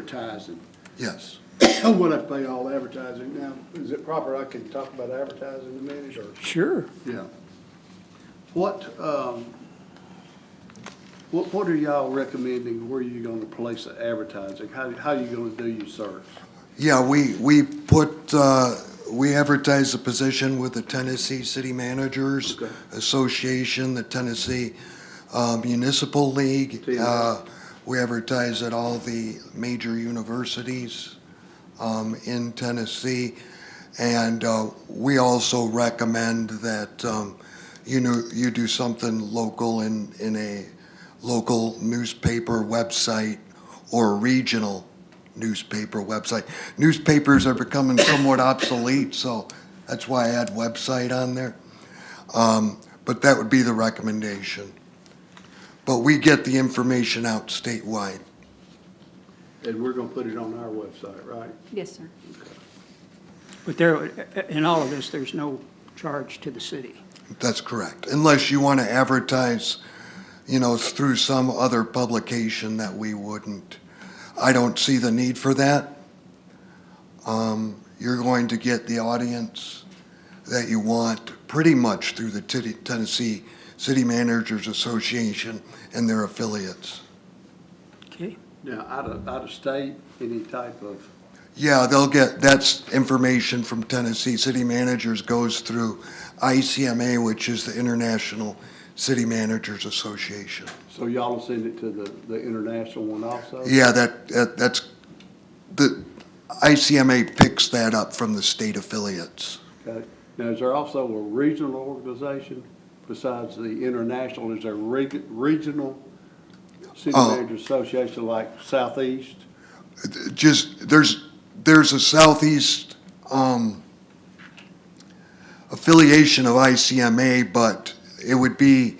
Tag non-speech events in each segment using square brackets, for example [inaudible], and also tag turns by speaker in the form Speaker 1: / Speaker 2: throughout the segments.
Speaker 1: advertising.
Speaker 2: Yes.
Speaker 1: [coughs] What I pay all advertising now, is it proper I can talk about advertising in a minute or?
Speaker 3: Sure.
Speaker 1: Yeah. What, um, what, what are y'all recommending, where are you gonna place the advertising? How, how you gonna do your search?
Speaker 2: Yeah, we, we put, uh, we advertised the position with the Tennessee City Managers
Speaker 1: Okay.
Speaker 2: Association, the Tennessee uh, Municipal League.
Speaker 1: Team.
Speaker 2: Uh, We advertise at all the major universities um, in Tennessee. And uh, we also recommend that, um, you know, you do something local in, in a local newspaper website or regional newspaper website. Newspapers are becoming somewhat obsolete, so that's why I had website on there. Um, But that would be the recommendation. But we get the information out statewide.
Speaker 1: And we're gonna put it on our website, right?
Speaker 4: Yes, sir.
Speaker 3: But there, in all of this, there's no charge to the city.
Speaker 2: That's correct. Unless you want to advertise, you know, through some other publication that we wouldn't. I don't see the need for that. Um, You're going to get the audience that you want pretty much through the Titi- Tennessee City Managers Association and their affiliates.
Speaker 3: Okay?
Speaker 1: Now, out of, out of state, any type of,
Speaker 2: Yeah, they'll get, that's information from Tennessee. City managers goes through ICMA, which is the International City Managers Association.
Speaker 1: so y'all will send it to the, the international one also?
Speaker 2: Yeah, that, that, that's, the ICMA picks that up from the state affiliates.
Speaker 1: Okay. Now, is there also a regional organization besides the international? Is there reg- regional city
Speaker 2: Oh.
Speaker 1: managers association like Southeast?
Speaker 2: Just, there's, there's a southeast, um, affiliation of ICMA, but it would be,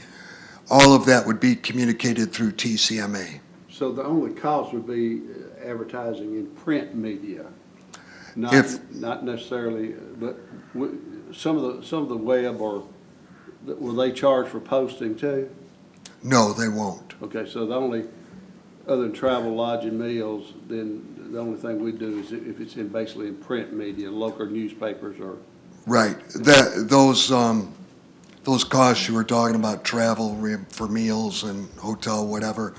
Speaker 2: all of that would be communicated through TCMA.
Speaker 1: So the only cost would be uh, advertising in print media, not,
Speaker 2: If-
Speaker 1: not necessarily, uh, but w- some of the, some of the web or, will they charge for posting too?
Speaker 2: No, they won't.
Speaker 1: Okay, so the only, other than travel, lodging, meals, then the only thing we do is if it's in basically in print media, local newspapers or
Speaker 2: Right, that, those, um, those costs you were talking about, travel re- for meals and hotel, whatever,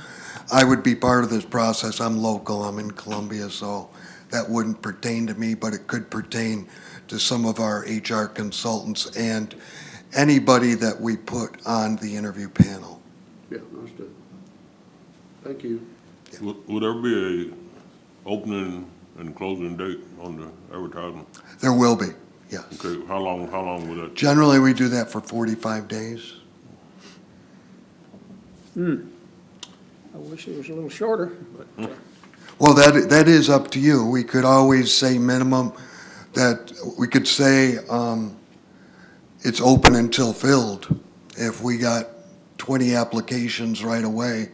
Speaker 2: I would be part of this process, I'm local, I'm in Columbia, so that wouldn't pertain to me, but it could pertain to some of our HR consultants and anybody that we put on the interview panel.
Speaker 1: Yeah, understood. Thank you.
Speaker 5: Would would there be a opening and closing date on the advertisement?
Speaker 2: There will be, yes.
Speaker 5: Okay, how long, how long would that?
Speaker 2: Generally, we do that for forty-five days.
Speaker 3: I wish it was a little shorter, but uh,
Speaker 2: Well, that, that is up to you. We could always say minimum, that, we could say, um, it's open until filled, if we got twenty applications right away.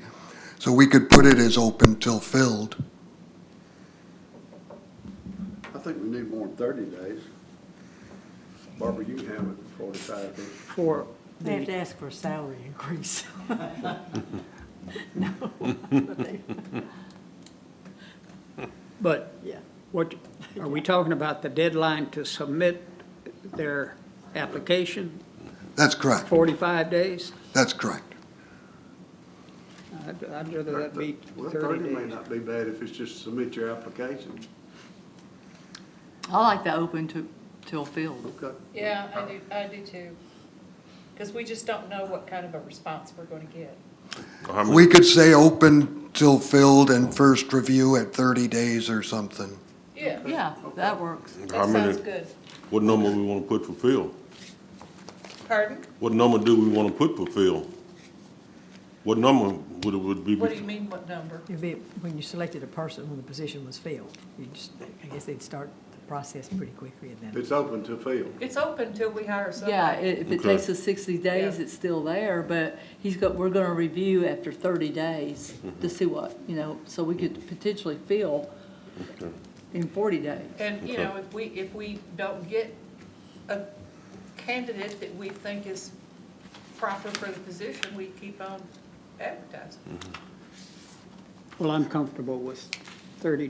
Speaker 2: So we could put it as open till filled.
Speaker 1: I think we need more than thirty days. Barbara, you can have it for forty-five days.
Speaker 3: for
Speaker 6: They have
Speaker 3: the,
Speaker 6: to ask for a salary increase.
Speaker 3: but
Speaker 6: Yeah.
Speaker 3: what, are we talking about the deadline to submit their application,
Speaker 2: That's correct.
Speaker 3: 45 days?
Speaker 2: That's correct.
Speaker 3: I'd I'd rather that be
Speaker 1: Well,
Speaker 3: 30
Speaker 1: thirty may
Speaker 3: days.
Speaker 1: not be bad if it's just submit your application.
Speaker 4: I like the open to, till filled.
Speaker 1: Okay.
Speaker 7: Yeah, I do, I do too. Because we just don't know what kind of a response we're going to get.
Speaker 5: how many-
Speaker 2: We could say open till filled and first review at thirty days or something.
Speaker 7: Yeah,
Speaker 4: Yeah, that works.
Speaker 5: how
Speaker 7: that
Speaker 5: many-
Speaker 7: sounds good.
Speaker 5: What number we want to put for Phil?
Speaker 7: Pardon?
Speaker 5: What number do we want to put for Phil? What number would it would be?
Speaker 7: What do you mean, what number?
Speaker 6: It'd be, when you selected a person, when the position was filled, you just, I guess they'd start the process pretty quickly and then.
Speaker 1: It's open to field.
Speaker 7: It's open till we hire
Speaker 4: Yeah, i-
Speaker 7: somebody.
Speaker 4: if it
Speaker 5: Okay.
Speaker 4: takes us 60 days,
Speaker 7: Yeah.
Speaker 4: it's still there, but he's got, we're going to review after 30 days to see what, you know, so we could potentially fill in 40 days.
Speaker 7: And, you know, if we, if we don't get a candidate that we think is proper for the position, we keep on advertising.
Speaker 3: Well, I'm comfortable with 30